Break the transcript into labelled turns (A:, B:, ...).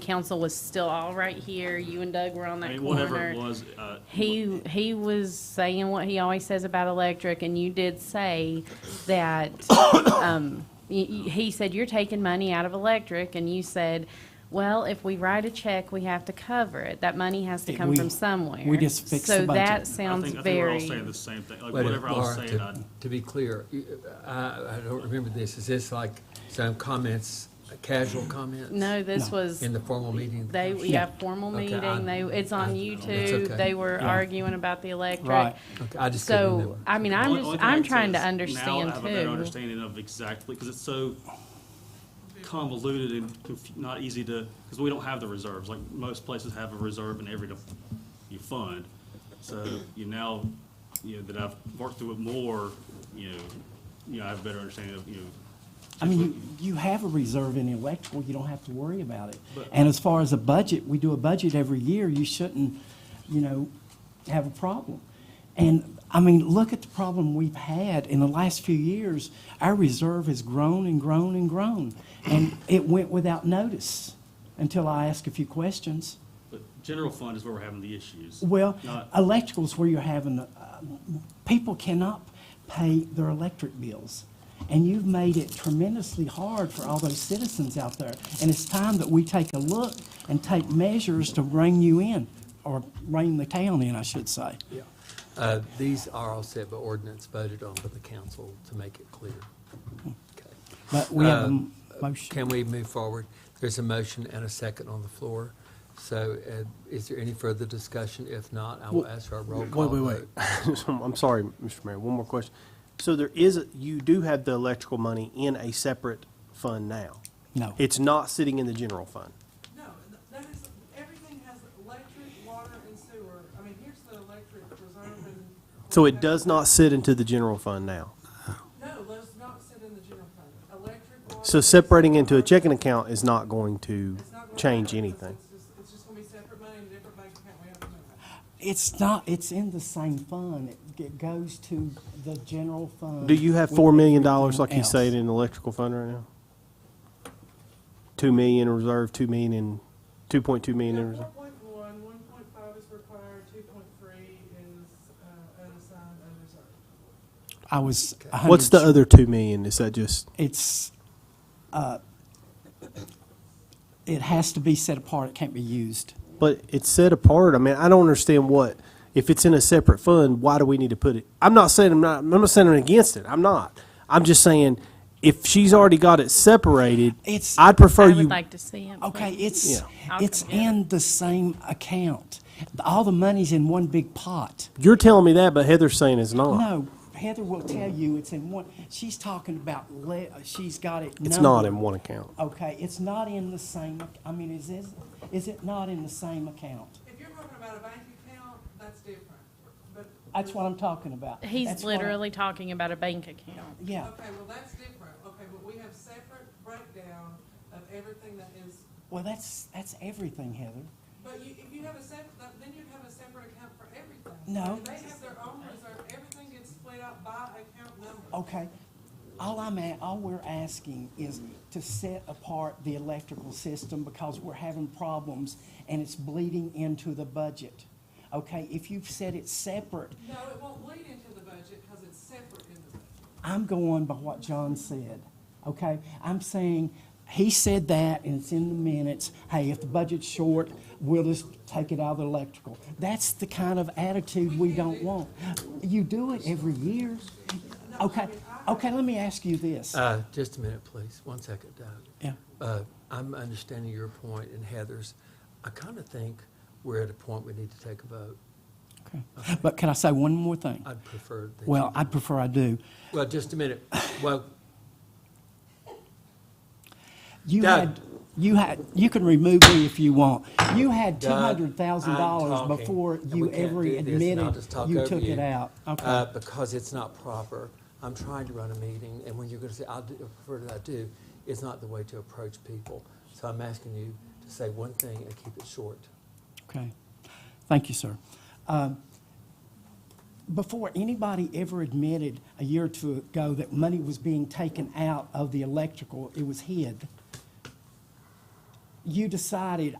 A: council was still all right here. You and Doug were on
B: I
A: that
B: mean, whatever it
A: corner.
B: was, uh,
A: He, he was saying what he always says about electric, and you did say that, um, y- y- he said, you're taking money out of electric, and you said, well, if we write a check, we have to cover it. That money has to
C: It-
A: come
C: we-
A: from somewhere.
C: we just fixed the
A: So
C: budget. I
A: that
C: think-
B: I
A: sounds
B: think, I think we're all
A: very.
B: saying the same thing, like,
D: Wait a minute,
B: whatever I was
D: Laura,
B: saying,
D: to-
B: I,
D: To be clear, you- I, I don't remember this, is this like some comments, casual comments?
A: No, this
C: No.
A: was.
D: In the formal meeting?
A: They, we
C: Yeah.
A: have formal
D: Okay,
A: meeting,
D: I-
A: they, it's on
D: It's
A: YouTube,
D: okay.
A: they were
C: Yeah.
A: arguing about the electric.
C: Right.
D: Okay, I just couldn't
A: So,
D: remember.
A: I mean,
B: The
A: I'm
B: only-
A: just,
B: only thing I
A: I'm
B: can say
A: trying to
B: is Now I
A: understand
B: have a better
A: too.
B: understanding of exactly, because it's so convoluted and conf- not easy to, because we don't have the reserves, like, most places have a reserve in every, de- you fund. So, you now, you know, that I've worked through it more, you know, you know, I have a better understanding of, you know.
C: I mean, you- you have a reserve in electrical, you don't have to worry about it.
B: But-
C: And as far as a budget, we do a budget every year, you shouldn't, you know, have a problem. And, I mean, look at the problem we've had in the last few years. Our reserve has grown and grown and grown, and it went without notice until I asked a few questions.
B: But general fund is where we're having the issues.
C: Well,
B: Not-
C: electrical's where you're having, uh, people cannot pay their electric bills. And you've made it tremendously hard for all those citizens out there. And it's time that we take a look and take measures to rein you in, or rein the town in, I should say.
D: Yeah. Uh, These are all set by ordinance voted on by the council to make it clear. Okay.
C: But we have a
D: Um,
C: m- motion.
D: Can we move forward? There's a motion and a second on the floor. So uh, is there any further discussion? If not, I will
E: Well,
D: ask for a roll call.
E: Wait, wait, wait.
D: vote.
E: So, I'm sorry, Mr. Mayor, one more question. So there is, you do have the electrical money in a separate fund now?
C: No.
E: It's not sitting in the general fund?
F: No, th- that is, everything has electric, water, and sewer. I mean, here's the electric reserve and.
E: So it does not sit into the general fund now?
F: No, those not sit in the general fund. Electric, water.
E: So separating into a checking account is not going to
F: It's not gonna
E: change
F: happen. It's-
E: anything?
F: It's just, it's just gonna be separate money in a different bank account. We have to know that.
C: It's not, it's in the same fund. It g- goes to the general fund.
E: Do you have
C: with
E: four million dollars, like
C: everything
E: you say,
C: else.
E: in the electrical fund right now? Two million in reserve, two million in, two point two million in
F: Yeah,
E: reserve?
F: four point one, one point five is required, two point three is, uh, unassigned, unreserved.
C: I was a hundred.
E: What's the other two million? Is that just?
C: it's, uh, it has to be set apart, it can't be used.
E: But it's set apart. I mean, I don't understand what, if it's in a separate fund, why do we need to put it? I'm not saying I'm not, I'm not saying I'm against it. I'm not. I'm just saying, if she's already got it separated,
C: It's-
E: I'd
A: I
E: prefer you.
A: would like to see it. but-
C: Okay, it's,
E: Yeah.
A: I'll
C: it's
A: forget it.
C: in the same account. All the money's in one big pot.
E: You're telling me that, but Heather's saying it's not.
C: No, Heather will tell you it's in one, she's talking about, le- she's got it
E: It's not
C: numbered.
E: in one account.
C: Okay, it's not in the same, ac- I mean, is this, is it not in the same account?
F: If you're talking about a bank account, that's different, but.
C: That's what I'm talking about.
A: He's
C: That's what I'm-
A: literally talking about a bank account.
C: Yeah,
F: Okay, well, that's different. Okay, but we have separate breakdown of everything that is,
C: well, that's, that's everything, Heather.
F: but you, if you have a separate, then you'd have a separate account for everything.
C: No.
F: They have their own reserve. Everything gets split out by account number.
C: Okay, all I'm at, all we're asking is to set apart the electrical system because we're having problems and it's bleeding into the budget. Okay, if you've said it's separate,
F: No, it won't lead into the budget because it's separate in the budget.
C: I'm going by what John said, okay? I'm saying, he said that, and it's in the minutes, hey, if the budget's short, we'll just take it out of the electrical. That's the kind of attitude we don't want. You do it every year. Okay, okay, let me ask you this.
D: Uh, Just a minute, please. One second, Doug.
C: Yeah.
D: Uh, I'm understanding your point and Heather's. I kind of think we're at a point we need to take a vote.
C: Okay. But can I say one more thing?
D: I'd prefer that. you-
C: Well, I'd prefer I do.
D: Well, just a minute. Well,
C: You
D: Doug.
C: had, you had, you can remove me if you want. You had two
D: Doug,
C: hundred thousand
D: I'm
C: dollars
D: talking,
C: before
D: and
C: you
D: we can't
C: ever
D: do this, and I'll
C: admitted
D: just talk
C: you
D: over
C: took it out.
D: uh,
C: Okay,
D: Because it's not proper. I'm trying to run a meeting, and when you're going to say, "I'll do- I prefer that I do," it's not the way to approach people. So I'm asking you to say one thing and keep it short.
C: okay. Thank you, sir. Um, Before anybody ever admitted a year or two ago that money was being taken out of the electrical, it was hid. you decided